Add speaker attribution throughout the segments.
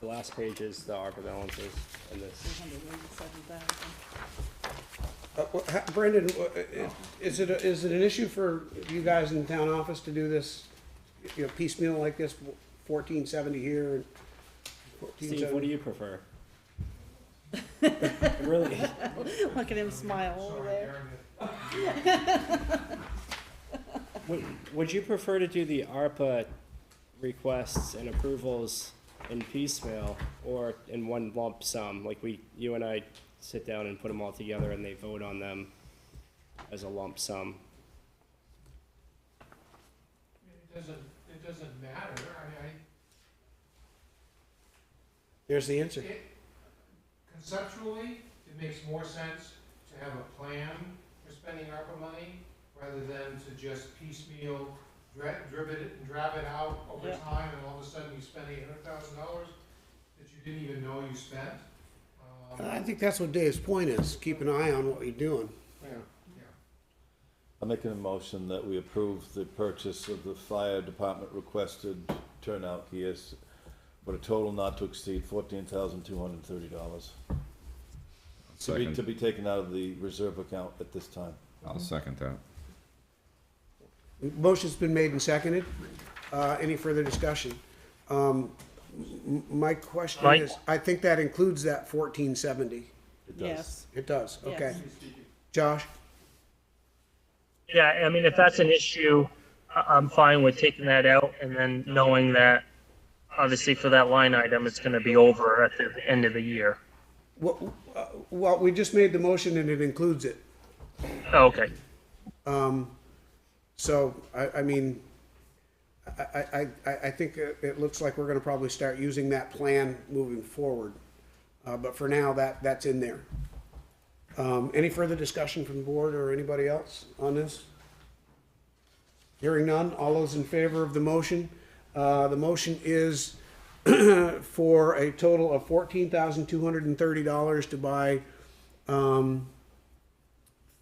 Speaker 1: The last page is the ARPA balances and this.
Speaker 2: hundred eighty-seven thousand.
Speaker 3: Uh, wha- ha- Brendan, wha- i- is it, a- is it an issue for you guys in the town office to do this, you know, piecemeal like this, fourteen seventy here and fourteen
Speaker 1: Steve, what do
Speaker 3: seventy?
Speaker 1: you prefer? Really?
Speaker 2: Look at him smile over there.
Speaker 1: Would, would you prefer to do the ARPA requests and approvals in piecemeal or in one lump sum? Like we, you and I sit down and put them all together and they vote on them as a lump sum?
Speaker 4: I mean, It doesn't, it doesn't matter, I, I,
Speaker 3: There's the answer.
Speaker 4: it, conceptually, it makes more sense to have a plan for spending ARPA money rather than to just piecemeal, dra- drib it, drab it out over
Speaker 2: Yeah.
Speaker 4: time, and all of a sudden you spend eight hundred thousand dollars that you didn't even know you spent. Um,
Speaker 3: I think that's what Dave's point is, keep an eye on what you're doing.
Speaker 4: yeah.
Speaker 5: I'm making a motion that we approve the purchase of the fire department requested turnout gears for a total not to exceed fourteen thousand two hundred and thirty dollars. To be, to
Speaker 6: Second,
Speaker 5: be taken out of the reserve account at this time.
Speaker 6: I'll second that.
Speaker 3: Motion's been made and seconded. Uh, any further discussion? Um, m- m- my question
Speaker 7: Mike?
Speaker 3: is, I think that includes that fourteen seventy.
Speaker 5: It does.
Speaker 2: Yes,
Speaker 3: It does,
Speaker 2: Yes.
Speaker 3: okay. Josh?
Speaker 7: Yeah, I mean, if that's an issue, I- I'm fine with taking that out and then knowing that obviously for that line item, it's gonna be over at the end of the year.
Speaker 3: What, uh, well, we just made the motion and it includes it.
Speaker 7: Oh, Okay,
Speaker 3: So, I, I mean, I, I, I, I think it it looks like we're gonna probably start using that plan moving forward. Uh, but for now, that, that's in there. Um, any further discussion from the board or anybody else on this? Hearing none, all those in favor of the motion? Uh, the motion is for a total of fourteen thousand two hundred and thirty dollars to buy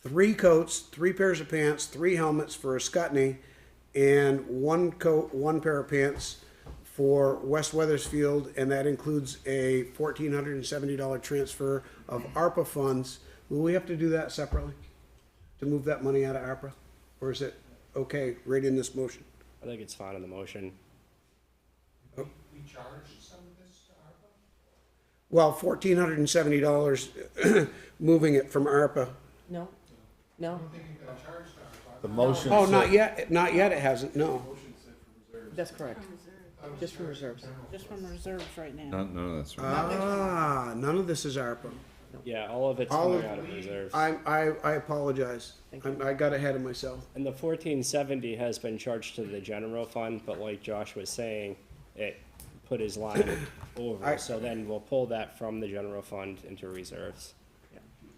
Speaker 3: three coats, three pairs of pants, three helmets for a Scutney, and one coat, one pair of pants for West Weathersfield, and that includes a fourteen hundred and seventy dollar transfer of ARPA funds. Will we have to do that separately to move that money out of ARPA, or is it okay right in this motion?
Speaker 1: I think it's fine in the motion.
Speaker 4: We, we charged some of this to ARPA?
Speaker 3: Well, fourteen hundred and seventy dollars, moving it from ARPA.
Speaker 8: No, no,
Speaker 4: I don't think it got charged to ARPA.
Speaker 5: The motion.
Speaker 3: Oh,
Speaker 5: said-
Speaker 3: not yet, not yet. It hasn't. No.
Speaker 8: that's correct.
Speaker 4: That was
Speaker 8: Just for
Speaker 4: charged
Speaker 8: reserves.
Speaker 4: general.
Speaker 2: just from reserves right now.
Speaker 6: No, no, that's right.
Speaker 3: Ah, none of this is ARPA.
Speaker 1: Yeah, all of it's
Speaker 3: All
Speaker 1: coming
Speaker 3: of-
Speaker 1: out of reserves.
Speaker 3: I, I, I apologize. I'm- I got ahead of myself.
Speaker 1: And the fourteen seventy has been charged to the general fund, but like Josh was saying, it put his line
Speaker 3: I-
Speaker 1: over, so then we'll pull that from the general fund into reserves.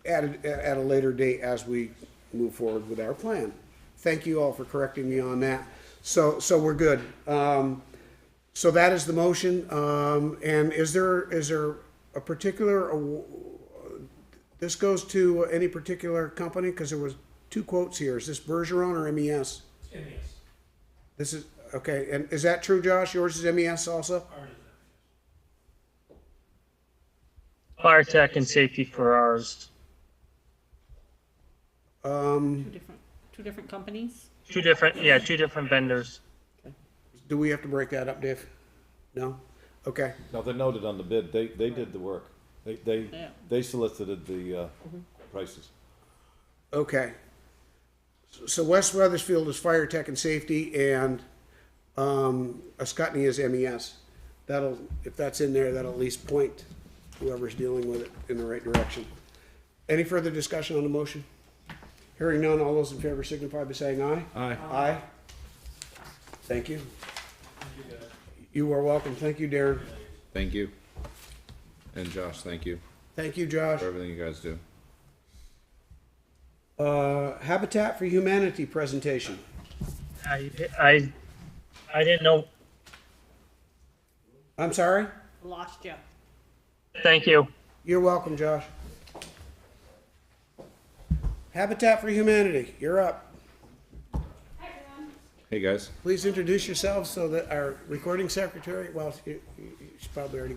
Speaker 3: At, a- at a later date as we move forward with our plan. Thank you all for correcting me on that. So, so we're good. Um, so that is the motion. Um, and is there, is there a particular, aw- this goes to any particular company? Cause there was two quotes here. Is this Bergeron or MES?
Speaker 4: In this,
Speaker 3: This is, okay. And is that true, Josh? Yours is MES also?
Speaker 4: already done.
Speaker 7: fire tech and safety for ours,
Speaker 3: Um,
Speaker 2: Two different, two different companies?
Speaker 7: two different, yeah, two different vendors.
Speaker 3: do we have to break that up, Dave? No? Okay.
Speaker 5: No, they noted on the bid. They, they did the work. They, they,
Speaker 2: Yeah.
Speaker 5: they solicited the, uh, prices.
Speaker 3: Okay. So West Weathersfield is fire tech and safety and, um, Ascutney is MES. That'll, if that's in there, that'll at least point whoever's dealing with it in the right direction. Any further discussion on the motion? Hearing none, all those in favor signify by saying aye.
Speaker 6: Aye.
Speaker 3: Aye. Thank you. You are welcome. Thank you, Darren.
Speaker 6: Thank you. And Josh, thank you
Speaker 3: Thank you, Josh.
Speaker 6: for everything you guys do.
Speaker 3: Uh, Habitat for Humanity presentation.
Speaker 7: I, I, I didn't know,
Speaker 3: I'm sorry?
Speaker 2: Lost you.
Speaker 7: thank you.
Speaker 3: You're welcome, Josh. Habitat for Humanity, you're up.
Speaker 6: Hey, guys.
Speaker 3: Please introduce yourselves so that our recording secretary, well, she- she's probably already